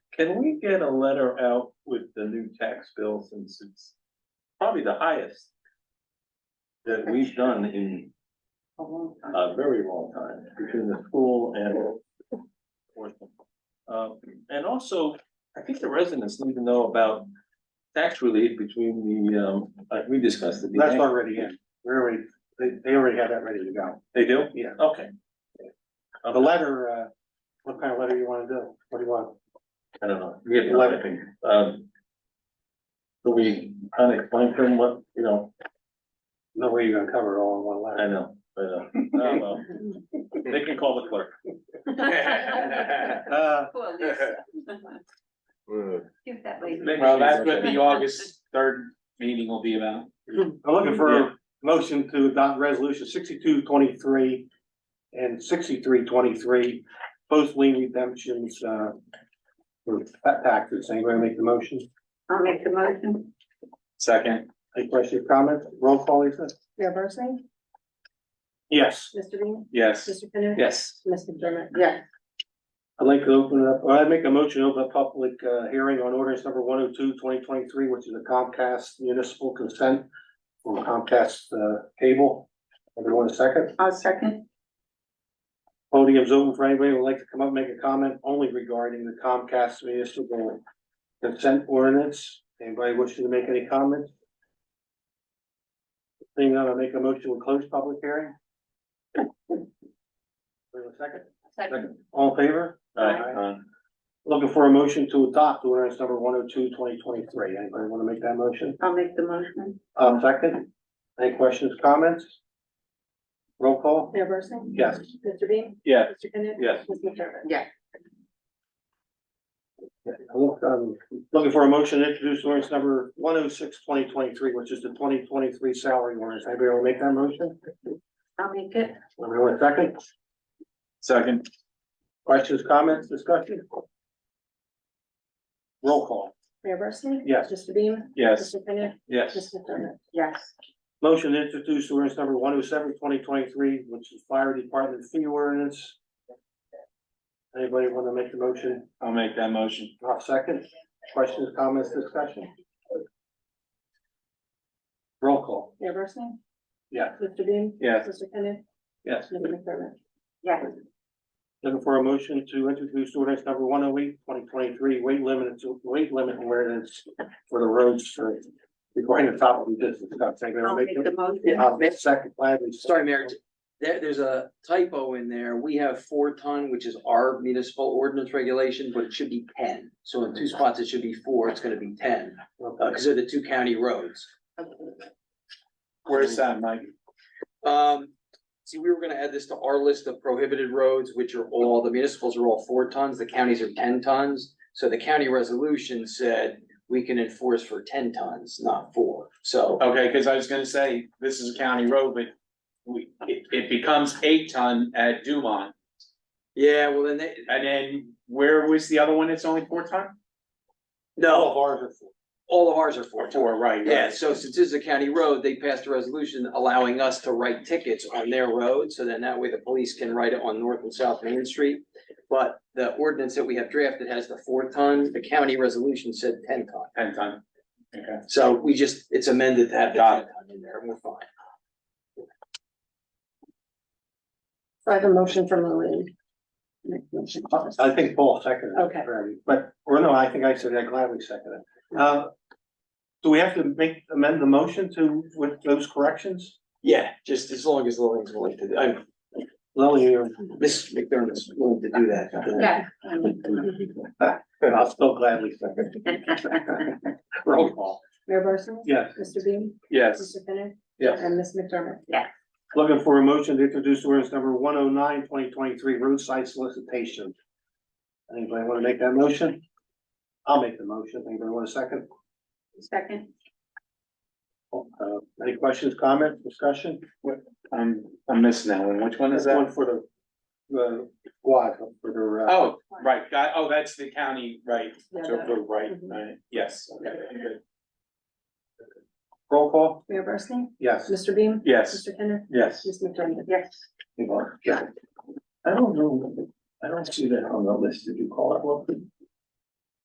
Can we get a letter out with the new tax bill since it's probably the highest that we've done in a long time. a very long time between the school and um, and also, I think the residents need to know about tax relief between the, um, like we discussed. the- That's already in, we're already, they, they already have that ready to go, They do? yeah. Okay. The letter, uh, what kind of letter you wanna do, what do you want? I don't know. We have to Eleven. Um. So we kind of explain to them what, you know, No way you're gonna cover it all in one I letter. know, I know. Oh, well. They can call the clerk. Uh, Poor Lisa. Give that lady. Well, that's what the August third meeting will be about. I'm looking for a motion to adopt resolution sixty-two twenty-three and sixty-three twenty-three, both lien redemptions, uh, for fat taxes, anybody make the motion? I'll make the motion. Second, Any questions, comments, roll call, Lisa? Mayor Barsney? Yes. Mr. Bean? yes. Mr. Penney? Yes. Ms. McDermott? Yes. I'd like to open up, or I'd make a motion to open a public uh hearing on ordinance number 102 2023, which is a Comcast municipal consent from Comcast uh cable. Everyone a second. I'll second. Podium's open for anybody who would like to come up and make a comment only regarding the Comcast municipal consent ordinance. Anybody wishing to make any comments? Seeing none, I make a motion to close public hearing. Wait a second. Second. All in favor? Aye. Um, Looking for a motion to adopt ordinance number 102 2023. Anybody want to make that motion? I'll make the motion. Um, second, any questions, comments? Roll call? Mayor Barsney? Yes. Mr. Bean? Yeah. Mr. Penney? Yes. Ms. McDermott? Yeah. Look, um, Looking for a motion to introduce ordinance number 106 2023, which is the twenty twenty-three salary ordinance. Anybody want to make that motion? I'll make it. Anybody want a second? Second, Questions, comments, discussion? Roll call? Mayor Barsney? Yes. Mr. Bean? yes. Mr. Penney? Ms. Yes. McDermott? Yes. Motion to introduce ordinance number 107 2023, which is fire department fee ordinance. Anybody want to make the motion? I'll make that motion. I'll second. Questions, comments, discussion? Roll call. Mayor Barsney? Yeah. Mr. Bean? Yes. Mr. Penney? Yes. Ms. McDermott? Yes. Looking for a motion to introduce ordinance number 108 2023 weight limit, weight limit ordinance for the roads for regarding the top of the distance. I'll make the motion. Yeah, I'll second, gladly. Sorry, Mayor, there, there's a typo in there. We have four ton, which is our municipal ordinance regulation, but it should be ten. So in two spots, it should be four, it's gonna be ten, uh, Okay. because they're the two county roads. Where's that, Mike? Um, see, we were gonna add this to our list of prohibited roads, which are all, the municipals are all four tons, the counties are ten tons. So the county resolution said we can enforce for ten tons, not four. So Okay, because I was gonna say, this is a county road, but we, it, it becomes eight ton at Dumont. Yeah, well, then they, And then where was the other one that's only four ton? All no, of ours are for- all of ours are four tons. Four, right. Yeah, so since this is a county road, they passed a resolution allowing us to write tickets on their road, so then that way the police can write it on North and South Main Street. But the ordinance that we have drafted has the four ton, the county resolution said ten ton. Ten ton. Okay. So we just, it's amended to have the ten ton in there, and we're fine. I have a motion from Lillian. Make the motion. I think Paul seconded. it. Okay. But, or no, I think I said that gladly seconded. Uh, do we have to make, amend the motion to, with those corrections? Yeah, just as long as Lillian's willing to, I'm, Lily, you're, Miss McDermott's willing to do that. Yeah. I'll still gladly second. Roll call. Mayor Barsney? Yes. Mr. Bean? Yes, Mr. Penney? Yes. And Ms. McDermott? Looking for a motion to introduce ordinance number 109 2023 roadside solicitation. Anybody want to make that motion? I'll make the motion. Anybody want a second? Second. Uh, any questions, comments, discussion? I'm, I'm missing that one. Which one is that? One for the, uh, quad, for the, uh, Oh, right, that, oh, that's the county, right, Yeah, so, that- we're right, Mhm. right, yes, okay, good. roll call? Mayor Barsney? Yes. Mr. Bean? yes, Mr. Penney? Yes. Ms. McDermott? Yes. Yeah. I don't know, I don't see that on the list. Did you call it?